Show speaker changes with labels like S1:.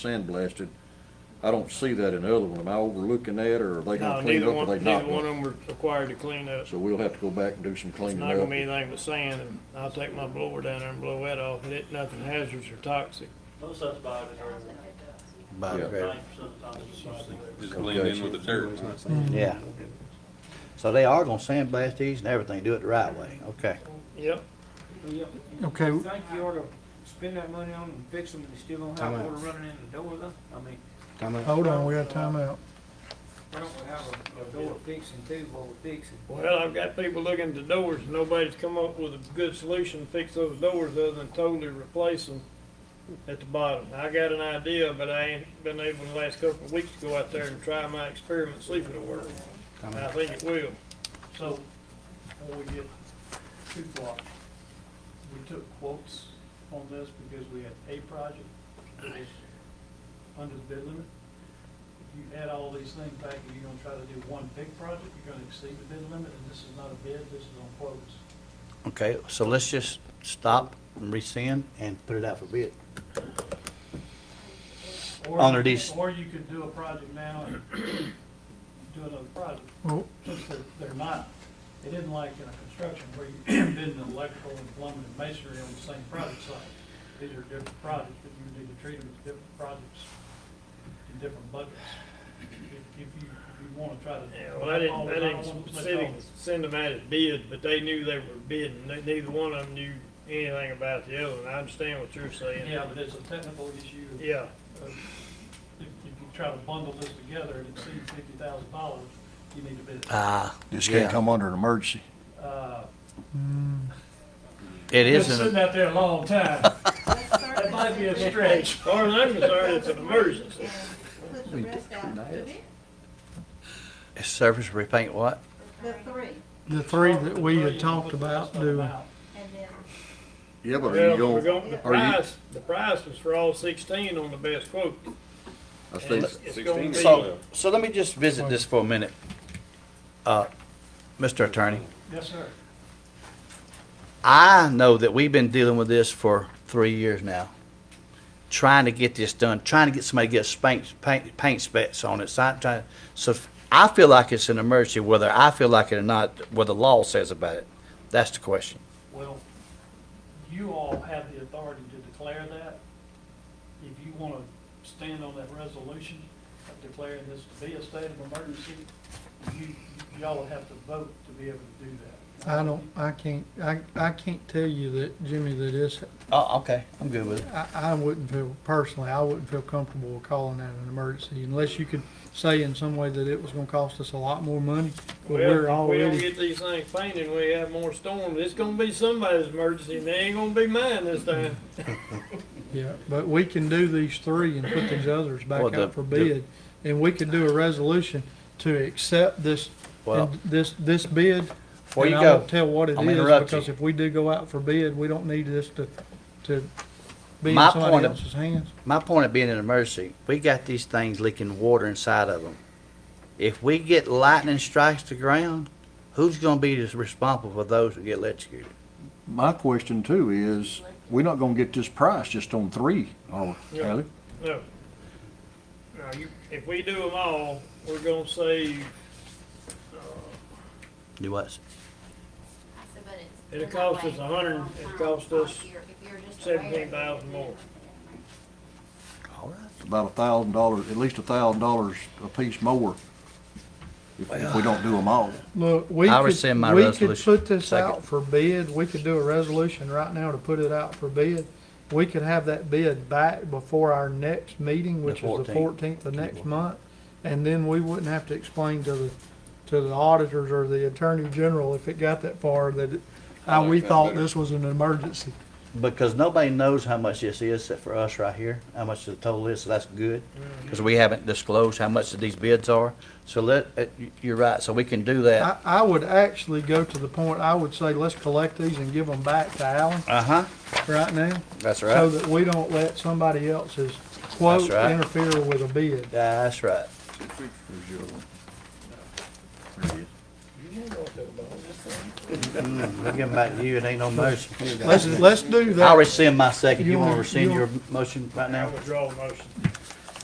S1: sand blasted. I don't see that in the other one. Am I overlooking that, or are they
S2: No,
S1: gonna clean
S2: neither
S1: up, or
S2: one,
S1: they
S2: neither
S1: not
S2: one
S1: gonna?
S2: of them were required to clean up.
S1: So we'll have to go back and do some
S2: It's
S1: cleaning
S2: not gonna be
S1: up.
S2: anything but sand, and I'll take my blower down there and blow that off, and it, nothing hazardous or toxic.
S3: Most of it's biodegradable.
S1: Yeah.
S4: Biodegradable,
S3: Ninety percent of the time it's biodegradable.
S5: Just blend in with the dirt.
S4: yeah. So they are gonna sandblast these and everything, do it the right way, okay.
S2: Yep,
S6: Okay,
S7: You think you ought to spend that money on and fix them, and you still don't have
S4: Time out.
S7: water running in the door though? I mean,
S6: hold on, we got time out.
S7: why don't we have a, a door fixing too, while we're fixing?
S2: well, I've got people looking at the doors, and nobody's come up with a good solution to fix those doors other than totally replace them at the bottom. I got an idea, but I ain't been able the last couple of weeks to go out there and try my experiment, see if it'll work. And I think it will.
S3: So, when we get too far, we took quotes on this because we had a project that was under the bid limit. If you add all these things back, and you're gonna try to do one big project, you're gonna exceed the bid limit, and this is not a bid, this is on quotes.
S4: Okay, so let's just stop and rescind and put it out for bid.
S3: Or-
S4: Honor these-
S3: Or you could do a project now and do another project.
S6: Well,
S3: since they're, they're not, they didn't like in a construction where you bid an electrical and plumbing and masonry on the same project site. These are different projects, but you need to treat them as different projects in different buckets. If, if you, if you wanna try to.
S2: Yeah, well, I didn't, I
S3: All the- all
S2: didn't
S3: the-
S2: send, send them out as bids, but they knew they were bidding. They- Neither one of them knew anything about the other, and I understand what you're saying.
S3: Yeah, but it's a technical issue.
S2: Yeah,
S3: of- If, if you try to bundle this together and exceed fifty thousand dollars, you need to bid. it.
S4: Ah,
S1: This can't
S4: Yeah.
S1: come under an emergency.
S3: Uh,
S4: it
S3: Been
S4: isn't,
S3: sitting out there a long time. That might be a stretch.
S2: as far as I'm concerned, it's an emergency.
S8: Put the rest out, the bid,
S4: a surface repaint what?
S8: the three,
S6: the three that we had talked about doing,
S8: and then,
S1: Yeah, but are
S2: Well,
S1: you gonna,
S2: we're going, the
S1: are you-
S2: price, the price was for all sixteen on the best quote.
S1: I
S2: And
S1: think,
S2: It's it's gonna be,
S4: So, so let me just visit this for a minute. Uh, Mr. Attorney,
S3: Yes, sir.
S4: I know that we've been dealing with this for three years now, trying to get this done, trying to get somebody to get spank, paint, paint specs on it. So I, try- so I feel like it's an emergency, whether I feel like it or not, what the law says about it. That's the question.
S3: Well, you all have the authority to declare that. If you want to stand on that resolution of declaring this to be a state of emergency, you, y'all would have to vote to be able to do that.
S6: I don't, I can't, I, I can't tell you that, Jimmy, that it's,
S4: Oh, okay, I'm good with it.
S6: I, I wouldn't feel, personally, I wouldn't feel comfortable calling that an emergency unless you could say in some way that it was gonna cost us a lot more money, but we're
S2: well, if we don't
S6: already,
S2: get these things painted, we have more storms. It's gonna be somebody's emergency, and they ain't gonna be mine this time.
S6: yeah, but we can do these three and put these others back
S4: Well, the-
S6: out for
S4: the-
S6: bid. And we could do a resolution to accept this,
S4: Well-
S6: this, this bid
S4: Before you
S6: And I
S4: go,
S6: won't tell what it
S4: I'm
S6: is,
S4: interrupting.
S6: because if we do go out for bid, we don't need this to, to be in
S4: My point
S6: somebody
S4: of-
S6: else's hands.
S4: my point of being an emergency, we got these things leaking water inside of them. If we get lightning strikes the ground, who's gonna be responsible for those who get electrocuted?
S1: my question too is, we're not gonna get this price just on three, are we,
S2: Yeah.
S1: Hallie?
S2: No. Now, you, if we do them all, we're gonna save,
S4: Do what?
S2: It'll cost us a hundred- it'll cost us seventeen thousand more.
S4: All right.
S1: About a thousand dollars, at least a thousand dollars a piece more if, if we don't do them all.
S6: Look, we
S4: I
S6: could,
S4: rescind my
S6: we could
S4: resolution.
S6: put this
S4: Second.
S6: out for bid, we could do a resolution right now to put it out for bid. We could have that bid back before our next meeting, which is the
S4: 14th.
S6: fourteenth of next month. And then we wouldn't have to explain to the, to the auditors or the attorney general if it got that far that, it- how we
S5: that
S6: thought
S5: better.
S6: this was an emergency.
S4: Because nobody knows how much this is except for us right here, how much the total is, so that's good.
S6: Mm-hmm.
S4: Because we haven't disclosed how much these bids are. So let, uh, you- you're right, so we can do that.
S6: I, I would actually go to the point, I would say, let's collect these and give them back to Alan
S4: Uh-huh,
S6: right now.
S4: that's
S6: So
S4: right.
S6: that we don't let somebody else's quote
S4: That's right.
S6: interfere with a bid.
S4: That's right.
S1: There's
S6: Mm-hmm.
S1: your other one. There it is.
S4: We'll give them back to you, it ain't no motion.
S6: Let's, let's do
S4: I'll
S6: that.
S4: rescind my second.
S6: You
S4: You wanna
S6: wanna-
S4: rescind
S6: you
S4: your motion right
S2: I
S4: now?
S2: withdraw the motion.